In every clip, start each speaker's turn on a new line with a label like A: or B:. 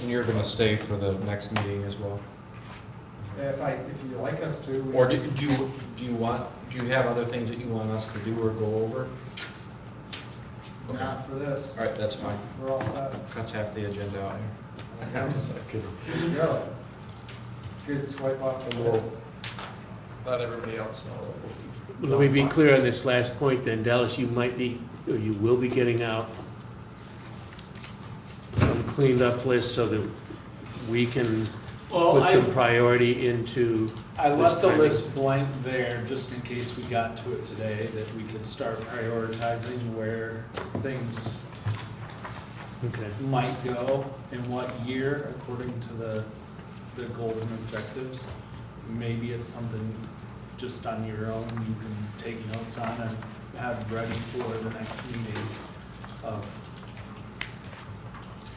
A: you're gonna stay for the next meeting as well?
B: If I, if you like us to. we-
A: Or do do you, do you want, do you have other things that you want us to do or go over? Okay.
B: Not for this.
A: All right, that's fine.
B: We're all set.
A: Cuts half the agenda out here. I'm just kidding.
B: Good to go. Good swipe off the list.
A: Let everybody else know.
C: Let me be clear on this last point then, Dallas, you might be, or you will be getting out a cleaned up list so that we can
D: Well,
C: put
D: I-
C: some priority into
D: I left the
C: this
D: list
C: timing.
D: blank there just in case we got to it today, that we could start prioritizing where things
C: Okay,
D: might go in what year according to the, the goals and objectives. Maybe it's something just on your own you can take notes on and have ready for the next meeting of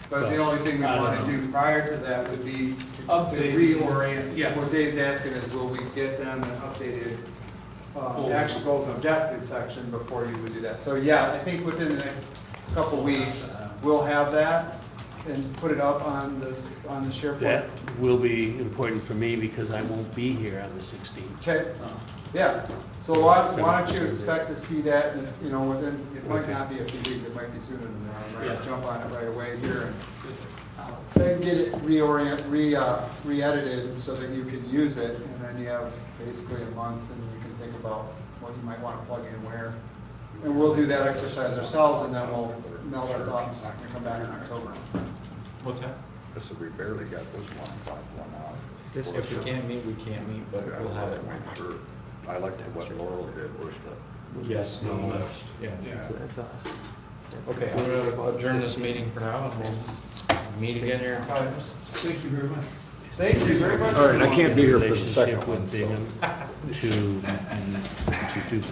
B: But the only thing we
D: I don't
B: want to
D: know.
B: do prior to that would be to- to
D: Update.
B: reorient.
D: Yes.
B: What Dave's asking is, will we get them an updated, uh,
D: Goals.
B: actual goals and objectives section before you would do that? So yeah, I think within the next couple weeks, we'll have that and put it up on the, s- on the SharePoint.
C: that will be important for me because I won't be here on the 16th.
B: Okay,
D: uh,
B: yeah. So why,
C: Seven
B: why don't you
C: percent.
B: expect to see that, in, you know, within, it might
C: Okay.
B: not be a few weeks, it might be sooner than that. I might
D: Yeah.
B: jump on it right away here and Then get it reorient, re, uh, re-edited so that you can use it, and then you have basically a month, and you can think about what you might want to plug in where. And we'll do that exercise ourselves, and then we'll meld our thoughts and come back in October.
A: What's that?
E: This is, we barely got this one, five, one out.
B: This-
A: If we can't meet, we can't meet, but we'll have it.
E: Went through. I liked what Laurel did was the.
A: Yes, no,
E: List.
A: Yeah.
D: yeah.
F: That's us.
A: Okay, I'm gonna adjourn this meeting for now, and we'll meet again here in five minutes.
D: Thank you very much.
B: Thank you very much.
E: All right, I can't be here for the
C: Relationship
E: second
C: with
E: one, so.
C: Bingham To, to do